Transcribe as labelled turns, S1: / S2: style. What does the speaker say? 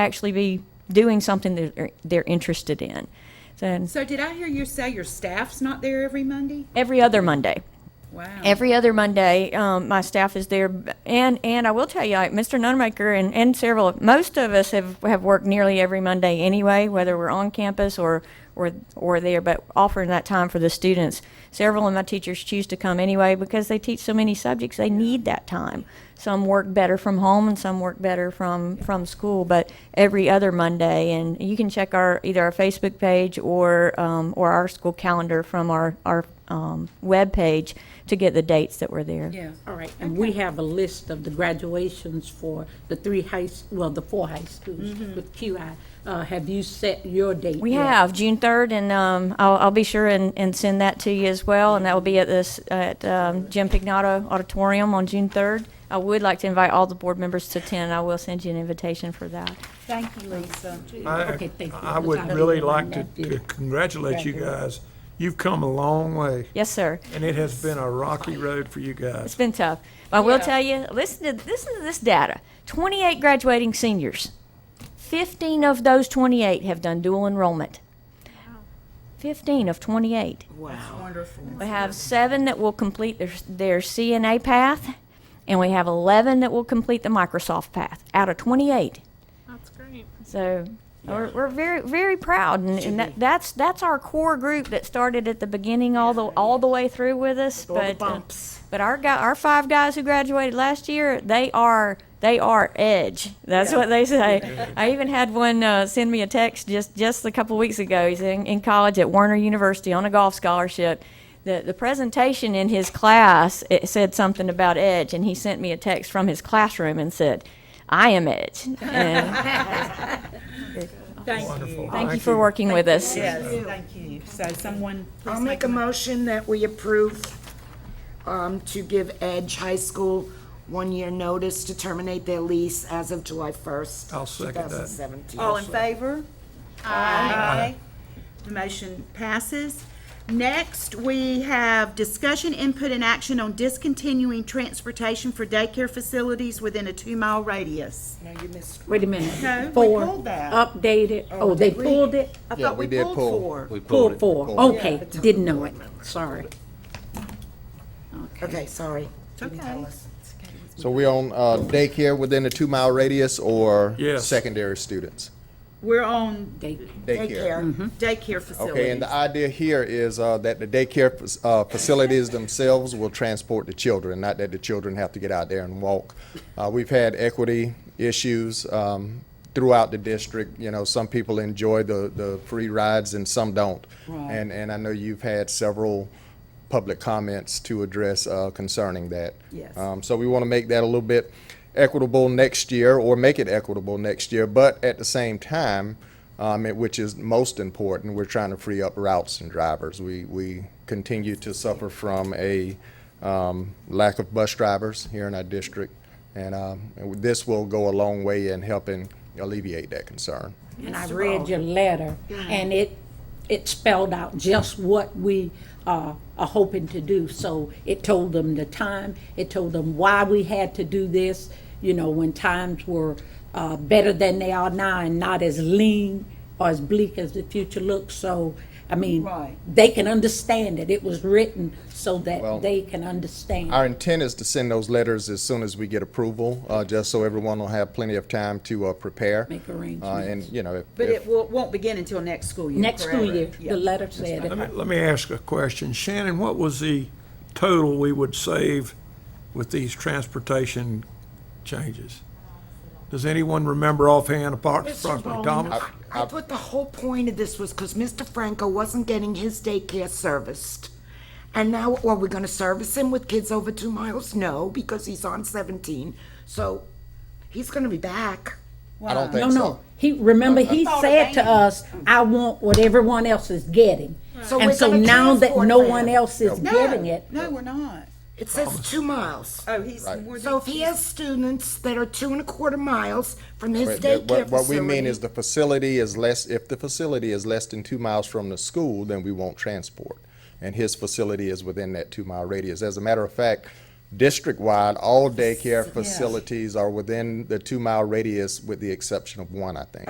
S1: actually be doing something that they're, they're interested in. So
S2: So did I hear you say your staff's not there every Monday?
S1: every other Monday.
S2: Wow.
S1: Every other Monday, um, my staff is there, and and I will tell you, like, Mr. Nonmaker and, and several, most of us have, have worked nearly every Monday anyway, whether we're on campus or or or there, but offering that time for the students. Several of my teachers choose to come anyway because they teach so many subjects, they need that time. Some work better from home, and some work better from from school, but every other Monday, and you can check our either our Facebook page or um, or our school calendar from our our um, webpage to get the dates that were there.
S2: Yeah.
S3: All right, and we have a list of the graduations for the three high, s- well, the four high schools
S2: Mm-hmm.
S3: with QI. Uh, Have you set your date?
S1: We
S3: yet?
S1: have June 3rd, and um, I'll, I'll be sure and, and send that to you as well. And that will be at this at um, Jim Pignato Auditorium on June 3rd. I would like to invite all the board members to attend. I will send you an invitation for that.
S2: Thank you, Lisa.
S3: Okay, thank you.
S4: I would really like to- to congratulate you guys. You've come a long way,
S1: Yes, sir.
S4: and it has been a rocky road for you
S1: It's
S4: guys.
S1: been tough. But I will tell you, listen to listen to this data: 28 graduating seniors. 15 of those 28 have done dual enrollment. 15 of 28.
S2: Wonderful.
S1: We have seven that will complete their, their CNA path, and we have 11 that will complete the Microsoft path out of 28.
S5: That's great.
S1: So we're, we're very, very proud. And, and that, that's, that's our core group that started at the beginning all the, all the way through with us.
S3: All the
S1: But, uh,
S3: bumps.
S1: but our guy, our five guys who graduated last year, they are they are edge. That's what they say. I even had one uh, send me a text just just a couple weeks ago. He's in, in college at Warner University on a golf scholarship. The, the presentation in his class it said something about edge, and he sent me a text from his classroom and said, "I am edge." And
S4: Wonderful.
S1: thank you for working with us.
S2: Yes, thank you. So someone,
S6: I'll make a motion that we approve um, to give Edge High School one-year notice to terminate their lease as of July 1st.
S4: I'll second that.
S6: 2017.
S2: all in favor? Aye. The motion passes. Next, we have discussion, input, and action on discontinuing transportation for daycare facilities within a two-mile radius.
S6: No, you missed.
S3: Wait a minute.
S2: No, we
S3: Four,
S2: pulled that.
S3: Updated, oh, they pulled it?
S2: I
S7: Yeah,
S2: thought
S7: we
S2: we
S7: did
S2: pulled
S7: pull.
S2: four.
S7: We pulled
S3: Pulled
S7: it.
S3: four, Oh.
S7: Pulled it.
S3: okay, didn't know it, sorry.
S6: Okay, sorry.
S2: It's okay.
S7: So we on uh, daycare within a two-mile radius or
S4: Yes.
S7: secondary students?
S2: We're on Mm-hmm.
S3: They-
S6: Daycare.
S2: daycare
S7: Okay, and
S2: facilities.
S7: the idea here is uh, that the daycare fac- uh, facilities themselves will transport the children, not that the children have to get out there and walk. Uh, We've had equity issues um, throughout the district, you know, some people enjoy the, the free rides and some don't. And, and I know you've had several public comments to address uh, concerning that.
S2: Yes.
S7: Um, So we want to make that a little bit equitable next year, or make it equitable next year, but at the same time, um, it- which is most important, we're trying to free up routes and drivers. We, we continue to suffer from a um, lack of bus drivers here in our district, and um, and this will go a long way in helping alleviate that concern.
S3: And I read your letter, and it, it spelled out just what we uh, are hoping to do. So it told them the time, it told them why we had to do this, you know, when times were uh, better than they are now and not as lean or as bleak as the future looks. So, I mean,
S2: Right.
S3: they can understand it. It was written so
S7: Well,
S3: that they can understand.
S7: Our intent is to send those letters as soon as we get approval, uh, just so everyone will have plenty of time to uh, prepare.
S3: Make
S7: Uh, And,
S3: arrangements.
S7: you know, if-
S2: But
S7: if-
S2: it will- won't begin until next school year.
S3: Next school
S2: correct?
S3: year,
S2: Yeah.
S3: the letter said
S4: Let
S3: it.
S4: me, let me ask a question. Shannon, what was the total we would save with these transportation changes? Does anyone remember offhand apart approximately Thomas?
S6: I thought the whole point of this was because Mr. Franco wasn't getting his daycare serviced. And now, are we going to service him with kids over two miles? No, because he's on 17. So he's going to be back.
S7: I don't
S3: No,
S7: think so.
S3: no. He, remember, he
S2: thought
S3: said to
S2: Elaine-
S3: us, I want what everyone else is getting.
S6: So
S3: And
S6: we're
S3: so
S6: gonna
S3: now that
S6: transport
S3: no
S6: them.
S3: one else is
S2: No,
S3: getting it,
S2: No, we're not.
S6: It says two miles.
S2: Oh, he's more than,
S6: So if he has students that are two and a quarter miles from his
S7: But
S6: daycare
S7: that-
S6: facility.
S7: What, what we mean is the facility is less, if the facility is less than two miles from the school, then we won't transport. And his facility is within that two-mile radius. As a matter of fact, district-wide, all daycare facilities are within the two-mile radius with the exception of one, I think.